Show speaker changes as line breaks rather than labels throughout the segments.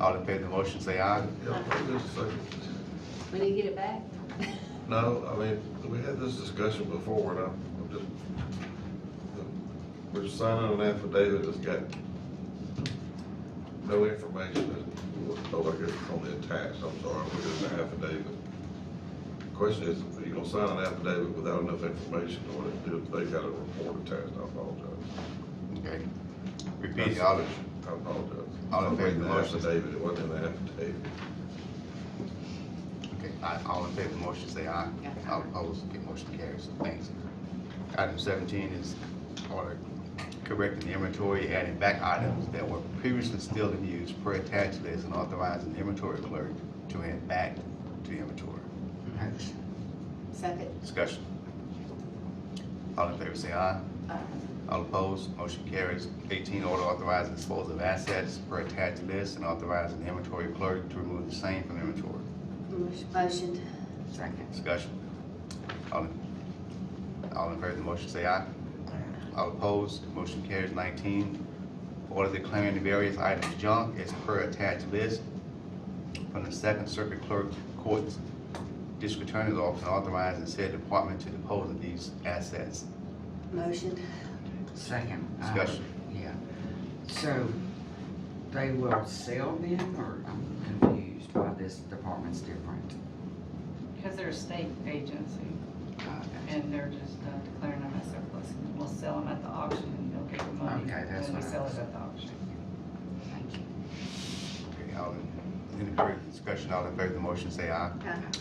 All in favor of the motion, say aye.
Yeah, wait just a second.
We need to get it back.
No, I mean, we had this discussion before, and I'm I'm just, we're signing an affidavit that's got no information, oh, I guess it's only attached, I'm sorry, we're just an affidavit. Question is, are you gonna sign an affidavit without enough information, or if they got a report attached, I apologize.
Okay. Repeat, all in,
I apologize.
All in favor of the motion?
Affidavit, it wasn't an affidavit.
okay, aye. all in favor of the motion, say aye.
Yeah.
All opposed, the motion carries. Thanks. Item seventeen is order correcting the inventory, adding back items that were previously still in use per attached list and authorizing the inventory clerk to add back to inventory.
Second.
Discussion. All in favor, say aye.
Uh,
All opposed, motion carries. Eighteen, order authorizing disposal of assets per attached list and authorizing the inventory clerk to remove the same from inventory.
Motion. Second.
Discussion. All in, all in favor of the motion, say aye. All opposed, motion carries. Nineteen, order declaring the various items junk as per attached list from the Second Circuit Clerk Court's District Attorney's Office and authorizing said department to dispose of these assets.
Motion.
Second. uh,
Discussion.
Yeah. So they will sell them or I'm confused why this department's different.
Because they're a state agency,
Uh, Okay,
and they're just uh, declaring them as surplus, and we'll sell them at the auction, and they'll get the money.
Okay, that's
when
what I
we sell
was-
it at the auction.
thank you.
Okay, all in, any further discussion, all in favor of the motion, say aye.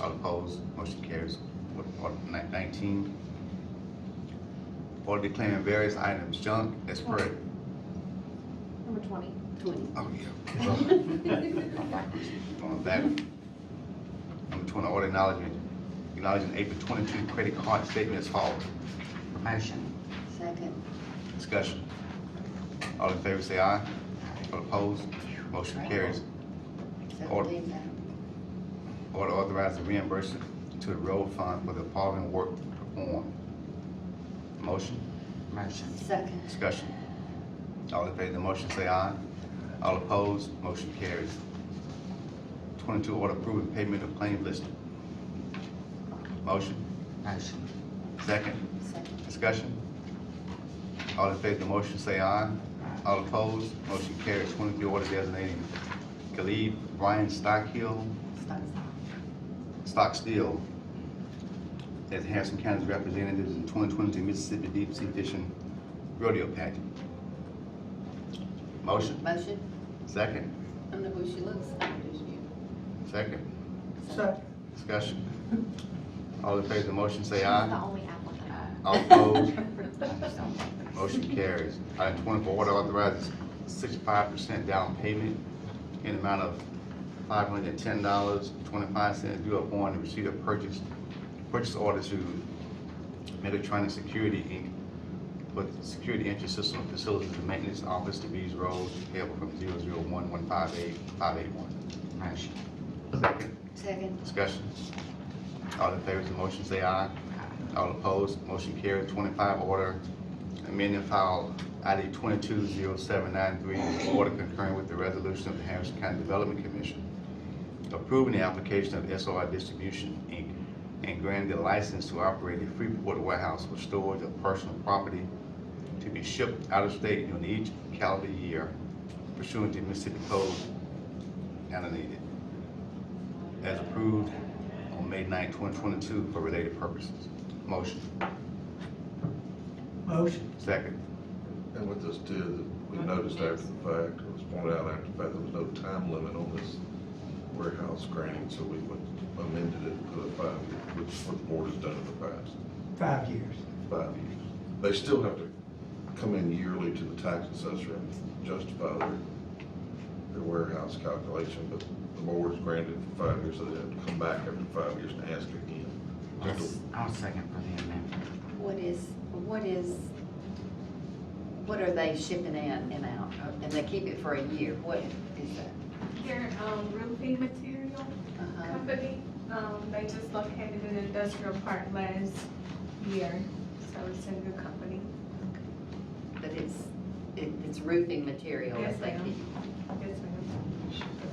All opposed, motion carries. Order- Order ni- nineteen, order declaring various items junk as per,
Number twenty.
Twenty.
oh yeah. On that, number twenty, order acknowledgement, acknowledging April twenty-two credit card statement is filed.
Motion.
Second.
Discussion. All in favor, say aye. All opposed, motion carries. Order.
Seventeen, Madam.
Order authorizing reimbursement to the road fund for the following work performed. Motion?
Motion.
Second.
Discussion. All in favor of the motion, say aye. All opposed, motion carries. Twenty-two, order approving payment of claim listed. Motion,
Motion.
second,
Second.
discussion. All in favor of the motion, say aye. All opposed, motion carries. Twenty-three, order designating Khalid Brian Stockhill,
Stop.
Stockstill as Harrison County's representatives in twenty twenty-two Mississippi Deep Sea Fishing Rodeo Pageant. Motion?
Motion.
Second,
I don't know who she looks like. does she?
second,
Second.
discussion. All in favor of the motion, say
She's
aye.
the only applicant.
All opposed,
I Uh, just don't like this.
motion carries. Item twenty-four, order authorizes sixty-five percent down payment in amount of five hundred and ten dollars, twenty-five cents due upon the receipt of purchase, purchase order to Megatronic Security Inc. for the Security Entry System Facilities and Maintenance Office, DeVries Road, payable from zero zero one one five eight, five eight one.
Motion.
Second.
Second.
Discussion. All in favor of the motion, say aye. All opposed, motion carried. Twenty-five, order amending file ID twenty-two zero seven nine three, order concurring with the resolution of the Harrison County Development Commission approving the application of SOI Distribution, Inc., and granting the license to operate a Freeport warehouse for storage of personal property to be shipped out of state during each calendar year pursuant to Mississippi Code, kind of needed as approved on May 9, 2022 for related purposes. Motion,
Motion.
second.
And what this did, we noticed after the fact, it was pointed out after the fact, there was no time limit on this warehouse grant, so we went- amended it to a five, year, which is what the board has done in the past,
Five years.
five years. They still have to come in yearly to the tax assessor and justify their, their warehouse calculation, but the board's granted for five years, so they have to come back after five years and ask again.
Yes, I'll second for the amendment.
What is, what is, what are they shipping in and out? And they keep it for a year. What is that?
They're um, roofing material
Uh-huh.
company. Um, They just located an industrial park last year, so it's a good company.
But it's, it- it's roofing material.
Yes,
that they
ma'am.
keep.
Yes, ma'am.